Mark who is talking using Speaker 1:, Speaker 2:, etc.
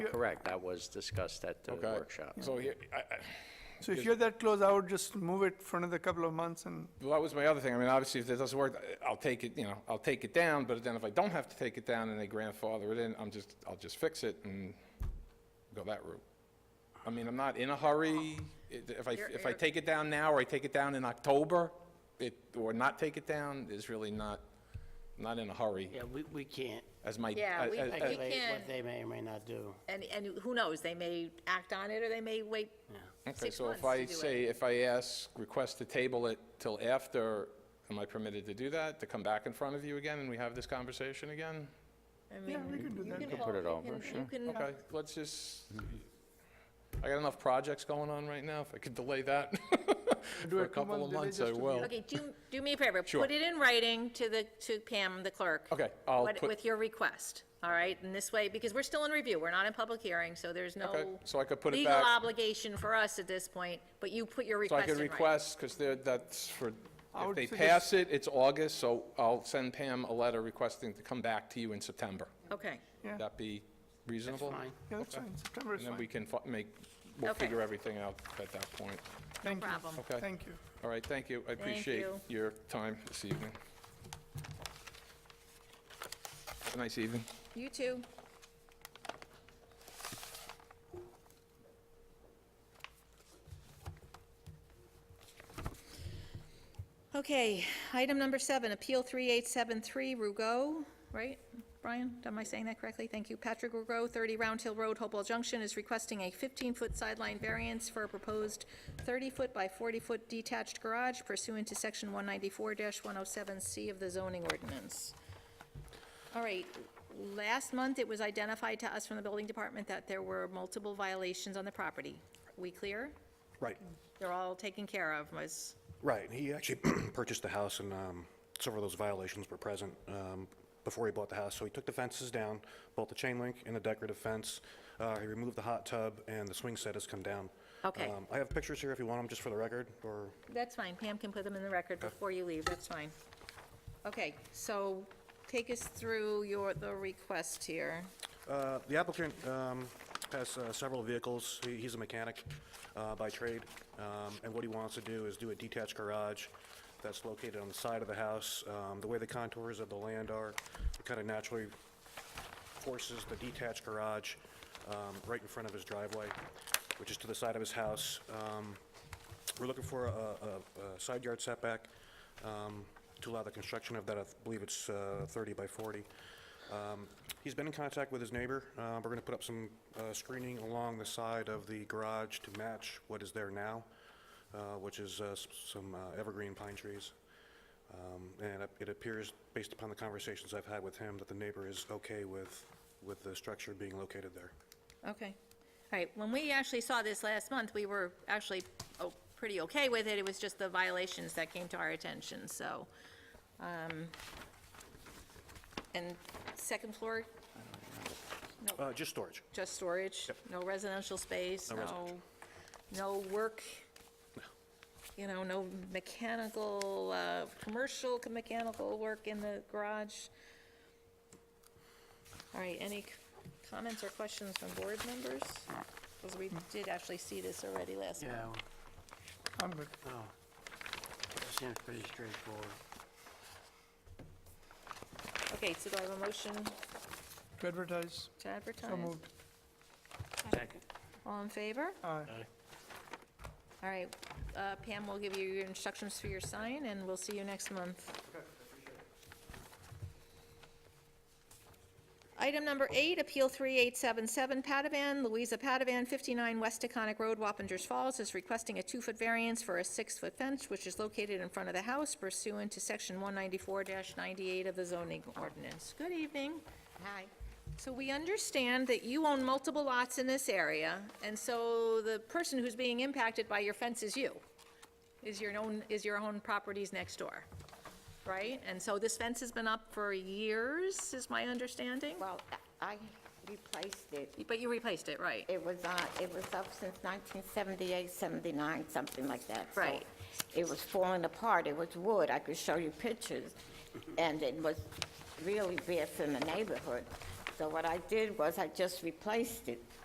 Speaker 1: Correct, that was discussed at the
Speaker 2: Okay.
Speaker 1: workshop.
Speaker 2: So here, I, I,
Speaker 3: So if you're that close, I would just move it for another couple of months and,
Speaker 2: well, that was my other thing. I mean, obviously, if it doesn't work, I- I'll take it, you know, I'll take it down, but then if I don't have to take it down and they grandfather it in, I'm just, I'll just fix it and go that route. I mean, I'm not in a hurry. It- If I, if I take it down now, or I take it down in October, it, or not take it down, is really not, not in a hurry,
Speaker 4: Yeah, we, we can't
Speaker 2: as my.
Speaker 5: Yeah, we-
Speaker 2: as- as-
Speaker 5: I-
Speaker 4: regulate
Speaker 5: can-
Speaker 4: what they may or may not do.
Speaker 5: And, and who knows, they may act on it, or they may wait
Speaker 2: Okay,
Speaker 5: six
Speaker 2: so
Speaker 5: months
Speaker 2: if
Speaker 5: to
Speaker 2: I
Speaker 5: do
Speaker 2: say,
Speaker 5: it.
Speaker 2: if I ask, request to table it till after, am I permitted to do that? To come back in front of you again and we have this conversation again?
Speaker 5: I
Speaker 3: yeah,
Speaker 5: mean,
Speaker 3: we can do
Speaker 5: you
Speaker 3: that.
Speaker 5: can
Speaker 1: put
Speaker 5: hold-
Speaker 1: it
Speaker 5: you
Speaker 1: over,
Speaker 5: can-
Speaker 1: sure.
Speaker 5: You can,
Speaker 2: Okay, let's just, I got enough projects going on right now, if I could delay that for a
Speaker 3: it two
Speaker 2: couple of
Speaker 3: months delay
Speaker 2: months,
Speaker 3: just
Speaker 2: I
Speaker 3: to be-
Speaker 2: will.
Speaker 5: okay, do, do me a favor.
Speaker 2: Sure.
Speaker 5: Put it in writing to the, to Pam, the clerk.
Speaker 2: Okay, I'll
Speaker 5: what-
Speaker 2: put-
Speaker 5: With your request, all right? And this way, because we're still in review, we're not in public hearing, so there's
Speaker 2: Okay,
Speaker 5: no
Speaker 2: so I could put it
Speaker 5: legal
Speaker 2: back-
Speaker 5: obligation for us at this point, but you put your
Speaker 2: So I
Speaker 5: request in
Speaker 2: could
Speaker 5: writing.
Speaker 2: request, because that's for,
Speaker 3: I
Speaker 2: if
Speaker 3: would
Speaker 2: they
Speaker 3: suggest-
Speaker 2: pass it, it's August, so I'll send Pam a letter requesting to come back to you in September.
Speaker 5: Okay,
Speaker 3: Yeah.
Speaker 2: Would that be reasonable?
Speaker 4: fine.
Speaker 3: Yeah, that's fine, September is
Speaker 2: And then we
Speaker 3: fine.
Speaker 2: can fi- make, we'll
Speaker 5: Okay.
Speaker 2: figure everything out at that point.
Speaker 3: No
Speaker 5: problem.
Speaker 2: Okay.
Speaker 3: Thank you.
Speaker 2: All right, thank you. I appreciate
Speaker 5: you.
Speaker 2: your time this evening. Have a Nice evening.
Speaker 5: you too. Okay, item number seven, Appeal 3873, Rugo, right? Brian, am I saying that correctly? Thank you. Patrick Rugo, 30 Round Hill Road, Hopewell Junction, is requesting a 15-foot sideline variance for a proposed 30-foot by 40-foot detached garage pursuant to Section 194-107C of the zoning ordinance. All right, last month, it was identified to us from the building department that there were multiple violations on the property. We clear?
Speaker 6: Right,
Speaker 5: They're all taken care of, was,
Speaker 6: right. He actually purchased the house and um, several of those violations were present um, before he bought the house. So he took the fences down, both the chain link and the decorative fence. Uh, He removed the hot tub and the swing set has come down.
Speaker 5: Okay.
Speaker 6: Um, I have pictures here if you want them, just for the record, or
Speaker 5: that's fine, Pam can put them in the record before you leave, that's fine. Okay, so take us through your, the request here.
Speaker 6: Uh, The applicant um, has uh, several vehicles. He- He's a mechanic uh, by trade, um, and what he wants to do is do a detached garage that's located on the side of the house. Um, The way the contours of the land are, it kind of naturally forces the detached garage um, right in front of his driveway, which is to the side of his house. Um, We're looking for a a- a side yard setback um, to allow the construction of that, I believe it's uh, 30 by 40. Um, He's been in contact with his neighbor. Uh, We're going to put up some uh, screening along the side of the garage to match what is there now, uh, which is uh, s- some uh, evergreen pine trees. Um, And it- it appears, based upon the conversations I've had with him, that the neighbor is okay with, with the structure being located there.
Speaker 5: Okay. All right, when we actually saw this last month, we were actually oh, pretty okay with it. It was just the violations that came to our attention, so. um, And second floor,
Speaker 6: Uh, Just storage.
Speaker 5: just storage? No residential space,
Speaker 6: No
Speaker 5: no,
Speaker 6: residential.
Speaker 5: no work? You know, no mechanical, uh, commercial mechanical work in the garage? All right, any c- comments or questions from board members? Because
Speaker 3: Hmm.
Speaker 5: we did actually see this already last month.
Speaker 4: Yeah, well,
Speaker 3: I'm good.
Speaker 4: no. It Seems pretty straightforward.
Speaker 5: Okay, so do I have a motion
Speaker 3: To advertise,
Speaker 5: to advertise?
Speaker 3: so moved.
Speaker 4: Second.
Speaker 5: All in favor?
Speaker 3: Aye.
Speaker 5: All right, uh, Pam will give you your instructions for your sign, and we'll see you next month. Item number eight, Appeal 3877 Padavan, Louisa Padavan, 59 West Taconic Road, Wappingers Falls, is requesting a two-foot variance for a six-foot fence, which is located in front of the house pursuant to Section 194-98 of the zoning ordinance. Good evening. Hi. So we understand that you own multiple lots in this area, and so the person who's being impacted by your fence is you, is your own, is your own properties next door, right? And so this fence has been up for years, is my understanding?
Speaker 7: Well, I replaced it.
Speaker 5: But you replaced it, right?
Speaker 7: It was, uh, it was up since 1978, 79, something like that. So
Speaker 5: Right.
Speaker 7: It was falling apart. It was wood. I could show you pictures. And it was really bad for the neighborhood. So what I did was I just replaced it.